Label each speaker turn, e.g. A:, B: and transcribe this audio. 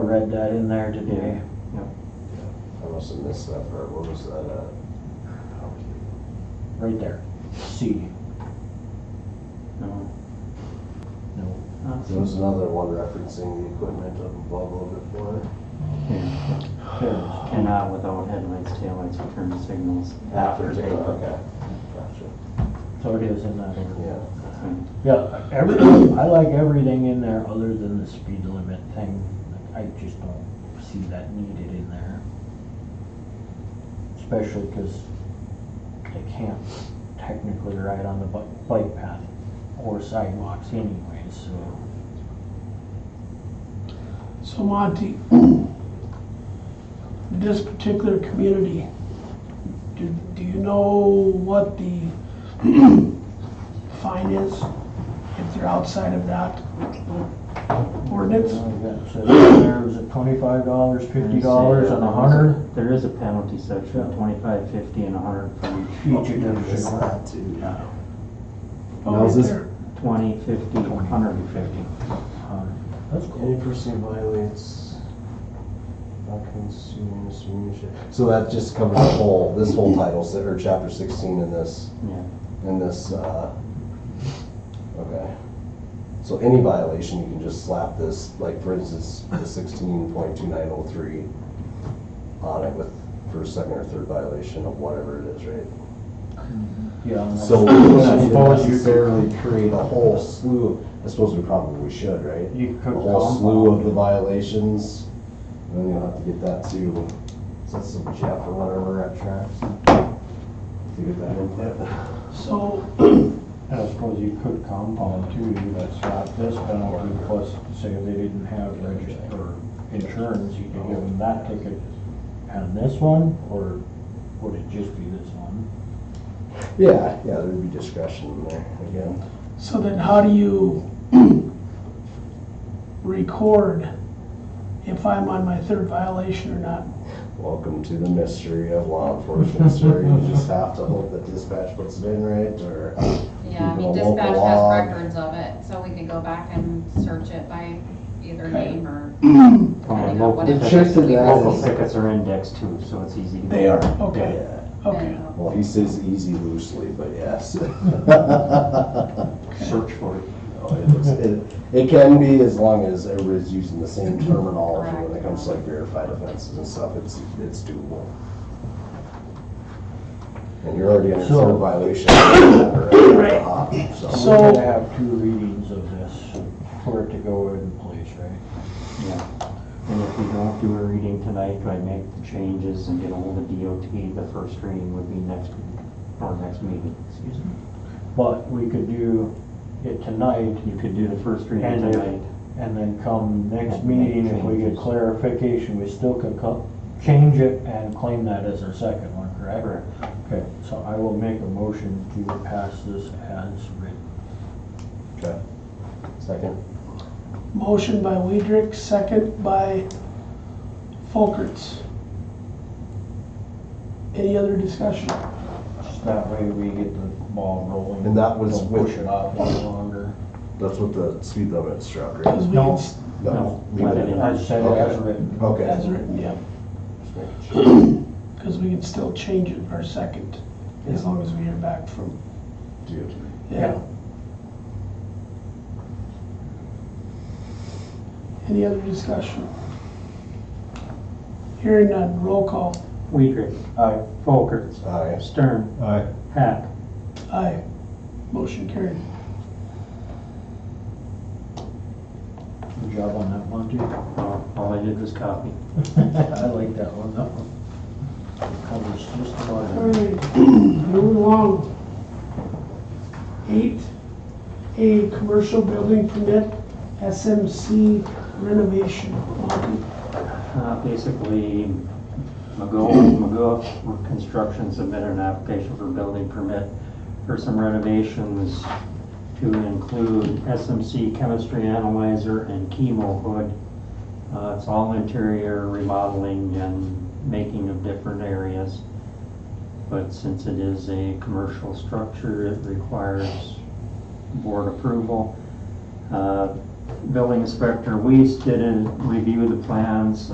A: read that in there today.
B: I must have missed that part, what was that at?
A: Right there. C. No. No.
B: There was another one referencing the equipment of blah, blah, blah, blah.
C: And not without headlights, taillights, or turn signals.
B: After day, okay, Uh, gotcha,
A: So it is in that area.
B: yeah.
A: Yeah, every, I like everything in there other than the speed limit thing. Like, I just don't see that needed in there. Especially because they can't technically ride on the bu- bike path or sidewalks anyway, so.
D: So Monty, this particular community, do, do you know what the fine is if they're outside of that ordinance? Oh,
A: Uh, that says There was a twenty-five dollars, fifty dollars, and a hundred
C: There is a penalty section, twenty-five, fifty, and a hundred for each.
A: each of
B: It's
A: them.
B: not too.
D: Oh,
B: Now, is
D: right
B: this-
D: there.
C: Twenty, fifty, hundred and fifty.
A: That's
B: Any
A: cool.
B: person who violates not consuming misdemeanor shall- So that just covers the whole, this whole title, se- or chapter sixteen in this,
C: Yeah.
B: in this, uh, okay. So any violation, you can just slap this, like for instance, the sixteen point two nine oh three on it with, for a second or third violation of whatever it is, right?
A: Yeah. and that's-
B: So we
A: I
B: wouldn't
A: suppose you could,
B: necessarily create a whole slew, of- I suppose we probably should, right?
A: you could
B: a
A: call
B: whole slew of the
A: them.
B: violations. and Then you'll have to get that to, is that some Jeff or whatever at Traps? To get that input.
D: So,
A: I suppose you could compound too, you could slap this penalty plus say if they didn't have registered or insurance, you could give them that ticket and this one, or would it just be this one?
B: Yeah, yeah, there'd be discretion in there again.
D: so then how do you record if I'm on my third violation or not?
B: Welcome to the mystery of law enforcement, sir. You just have to hope that dispatch puts it in right or.
E: Yeah, I mean,
B: People
E: dispatch
B: local
E: has
B: law.
E: records of it, so we could go back and search it by either name or.
C: Yeah,
E: depending on
C: local
E: what it
C: tickets-
B: check to that
E: is.
C: Local tickets are indexed too, so it's easy to.
D: They are, okay,
B: Yeah.
D: okay.
E: uh,
B: Well, he says easy loosely, but yes.
C: Search for it.
B: No, it looks- It it can be as long as everybody's using the same terminology when it comes to like verified offenses and stuff, it's, it's doable. And you're already under
A: So-
B: third violation. Right.
A: So
D: So-
A: we gotta have two readings of this for it to go in place, right?
C: Yeah. And if we don't do a reading tonight, do I make the changes and get ahold of DOT, the first reading would be next week, or next meeting, excuse me.
A: But we could do it tonight
C: You could do the first reading
A: And if-
C: tonight.
A: and then come next
C: And make
A: meeting, if we get
C: changes.
A: clarification, we still could co- change it and claim that as our second one, correct? Okay, so I will make a motion to pass this as written.
B: Okay. Second.
D: Motion by Weidrich, second by Folkerts. Any other discussion?
A: Just that way we get the ball rolling.
B: And that was
A: Don't
B: with-
A: Push it off any longer.
B: That's what the speed limit struck,
D: Because we
A: No.
D: can s-
C: No,
B: Leave
C: let it
B: it.
C: in.
A: I said it as written.
D: As
B: Okay.
D: written, yeah,
B: Just making sure.
D: because we can still change it our second, as long as we hear back from,
B: Dude.
D: yeah. Any other discussion? Hearing none, roll call.
C: Weidrich. Aye. Folkerts.
B: Aye.
C: Stern.
B: Aye.
C: Hack.
D: Aye. Motion carried.
A: Good job on that one, too.
C: Well, All I did was copy.
A: I like that one, that one. Covers just about
D: All
A: everything.
D: right, moving along. Eight, a commercial building permit, SMC renovation. Monty?
C: Uh, Basically, McGo, McGo Construction submitted an application for building permit for some renovations to include SMC chemistry analyzer and chemo hood. Uh, It's all interior remodeling and making of different areas. But since it is a commercial structure, it requires board approval. Uh, building inspector Weiss did a review of the plans